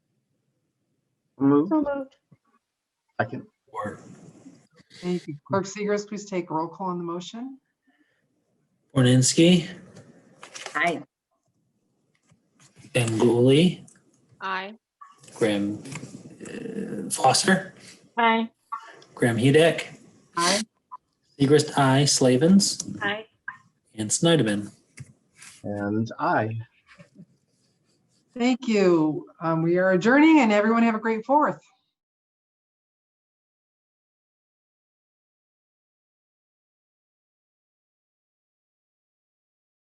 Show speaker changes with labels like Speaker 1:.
Speaker 1: Move.
Speaker 2: So moved.
Speaker 1: Second.
Speaker 3: Or
Speaker 4: Thank you. Clerk Seegers, please take roll call on the motion.
Speaker 3: Orninsky,
Speaker 5: Aye.
Speaker 3: Ganguly,
Speaker 2: Aye.
Speaker 3: Graham uh, Foster,
Speaker 2: Aye.
Speaker 3: Graham Hudek,
Speaker 4: Aye.
Speaker 3: Segrist, I, Slavens,
Speaker 2: Aye.
Speaker 3: and Snyderman.
Speaker 1: And I.
Speaker 4: Thank you. Um, We are adjourning and everyone have a great fourth.